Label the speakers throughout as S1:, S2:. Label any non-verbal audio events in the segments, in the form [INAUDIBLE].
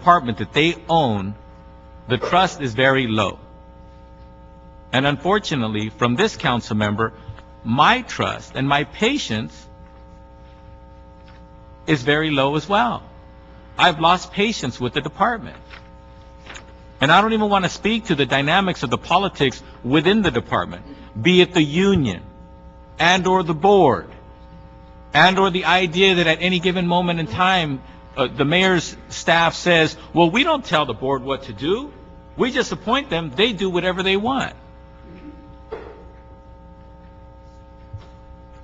S1: apartment that they own, the trust is very low. And unfortunately, from this council member, my trust and my patience is very low as well. I've lost patience with the department. And I don't even want to speak to the dynamics of the politics within the department, be it the union and/or the board and/or the idea that at any given moment in time, uh, the mayor's staff says, "Well, we don't tell the board what to do. We just appoint them. They do whatever they want."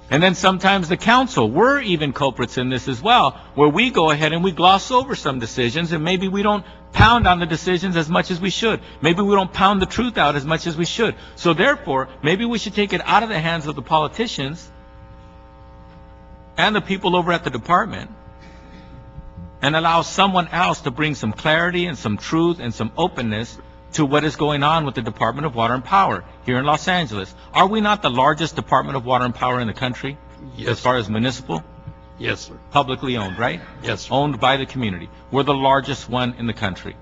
S1: And then sometimes the council, we're even culprits in this as well, where we go ahead and we gloss over some decisions, and maybe we don't pound on the decisions as much as we should. Maybe we don't pound the truth out as much as we should. So therefore, maybe we should take it out of the hands of the politicians and the people over at the department and allow someone else to bring some clarity and some truth and some openness to what is going on with the Department of Water and Power here in Los Angeles. Are we not the largest Department of Water and Power in the country? As
S2: Yes,
S1: far as municipal,
S2: yes, sir.
S1: publicly owned, right?
S2: Yes, sir.
S1: Owned by the community. We're the largest one in the country.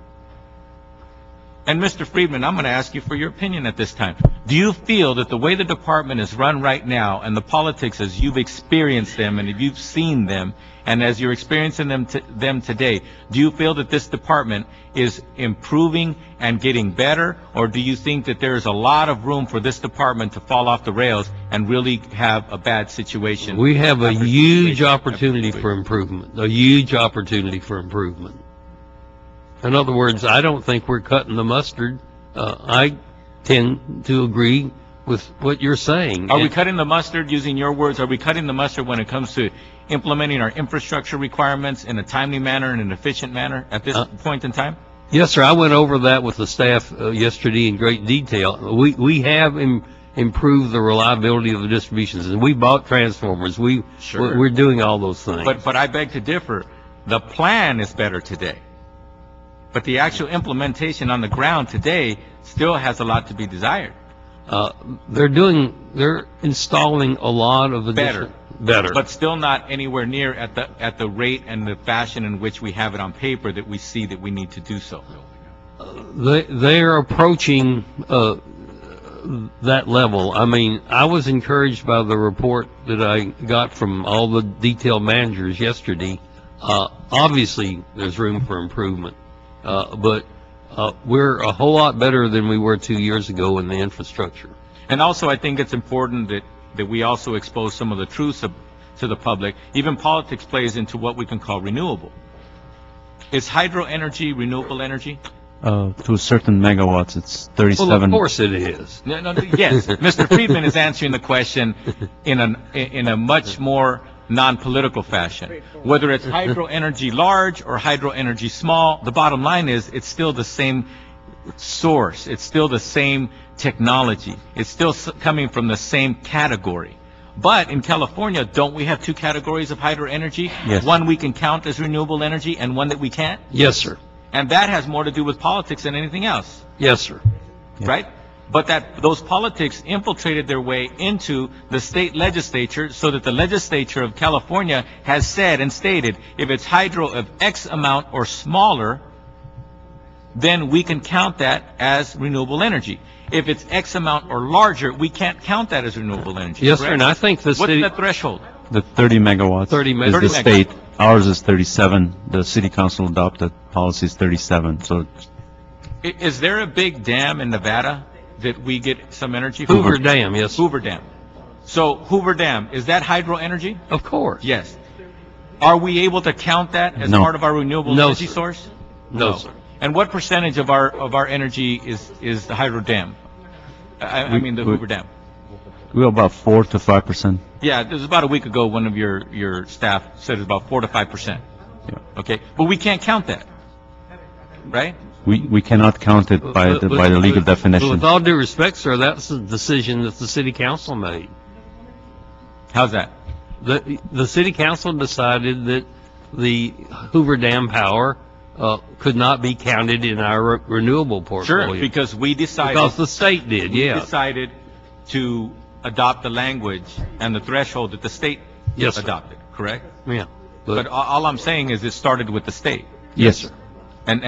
S1: And Mr. Friedman, I'm going to ask you for your opinion at this time. Do you feel that the way the department is run right now and the politics as you've experienced them and if you've seen them and as you're experiencing them, to, them today, do you feel that this department is improving and getting better or do you think that there is a lot of room for this department to fall off the rails and really have a bad situation?
S2: We have a
S1: After
S2: huge
S1: situation, after
S2: opportunity for
S1: situation.
S2: improvement, a huge opportunity for improvement. In other words, I don't think we're cutting the mustard. Uh, I tend to agree with what you're saying.
S1: Are we cutting the mustard, using your words, are we cutting the mustard when it comes to implementing our infrastructure requirements in a timely manner and an efficient manner at this
S2: Uh,
S1: point in time?
S2: Yes, sir. I went over that with the staff uh, yesterday in great detail. We, we have im- improved the reliability of the distributions, and we bought transformers. We,
S1: Sure.
S2: we're we're doing all those things.
S1: But, but I beg to differ. The plan is better today. But the actual implementation on the ground today still has a lot to be desired.
S2: Uh, they're doing, they're installing a lot of additional. Better.
S1: But still not anywhere near at the, at the rate and the fashion in which we have it on paper that we see that we need to do so.
S2: They, they are approaching, uh, that level. I mean, I was encouraged by the report that I got from all the detail managers yesterday. Uh, obviously, there's room for improvement. Uh, but, uh, we're a whole lot better than we were two years ago in the infrastructure.
S1: And also, I think it's important that, that we also expose some of the truths of- to the public. Even politics plays into what we can call renewable. Is hydro energy renewable energy?
S3: Uh, to a certain megawatts, it's
S2: Well, of
S3: 37.
S2: course it is.
S1: No, no, yes, [LAUGHS] Mr. Friedman is answering the question in an, in a much more non-political fashion. Whether it's hydro energy large or hydro energy small, the bottom line is, it's still the same source, it's still the same technology, it's still s- coming from the same category. But in California, don't we have two categories of hydro energy?
S3: Yes.
S1: One we can count as renewable energy and one that we can't?
S2: Yes, sir.
S1: And that has more to do with politics than anything else
S2: Yes, sir.
S3: Yeah.
S1: right? But that, those politics infiltrated their way into the state legislature so that the legislature of California has said and stated, if it's hydro of X amount or smaller, then we can count that as renewable energy. If it's X amount or larger, we can't count that as renewable energy.
S2: Yes, sir. And I
S1: correct?
S2: think the
S1: What's
S2: city.
S1: the threshold?
S3: The 30 megawatts
S2: 30 meg-
S3: is
S1: 30
S3: the
S1: megawatts.
S3: state. Ours is 37. The city council adopted policy is 37. So
S1: I- Is there a big dam in Nevada that we get some energy from?
S2: Hoover Dam, yes.
S1: Hoover Dam. So Hoover Dam, is that hydro energy?
S2: Of course.
S1: Yes. Are we able to count that as
S3: No.
S1: part of our renewable
S2: No,
S1: energy
S2: sir.
S1: source?
S2: No, sir.
S1: And what percentage of our, of our energy is, is the hydro dam? I, I
S3: We-
S1: mean, the
S3: we-
S1: Hoover Dam.
S3: we're about 4 to 5 percent.
S1: Yeah, this was about a week ago, one of your, your staff said it's about four to five percent.
S3: Yeah.
S1: Okay, but we can't count that, right?
S3: We, we cannot count it by the,
S2: But-
S3: by the
S2: but-
S3: legal
S2: but- but
S3: definition.
S2: With all due respect, sir, that's a decision that the city council made.
S1: How's that?
S2: The, the city council decided that the Hoover Dam power, uh, could not be counted in our re- renewable
S1: Sure,
S2: portfolio.
S1: because we decided.
S2: Because the state did,
S1: we
S2: yeah.
S1: decided to adopt the language and the threshold that the state
S2: Yes, sir.
S1: adopted, correct?
S2: Yeah.
S1: But
S2: But,
S1: all, all I'm saying is it started with the state.
S3: Yes,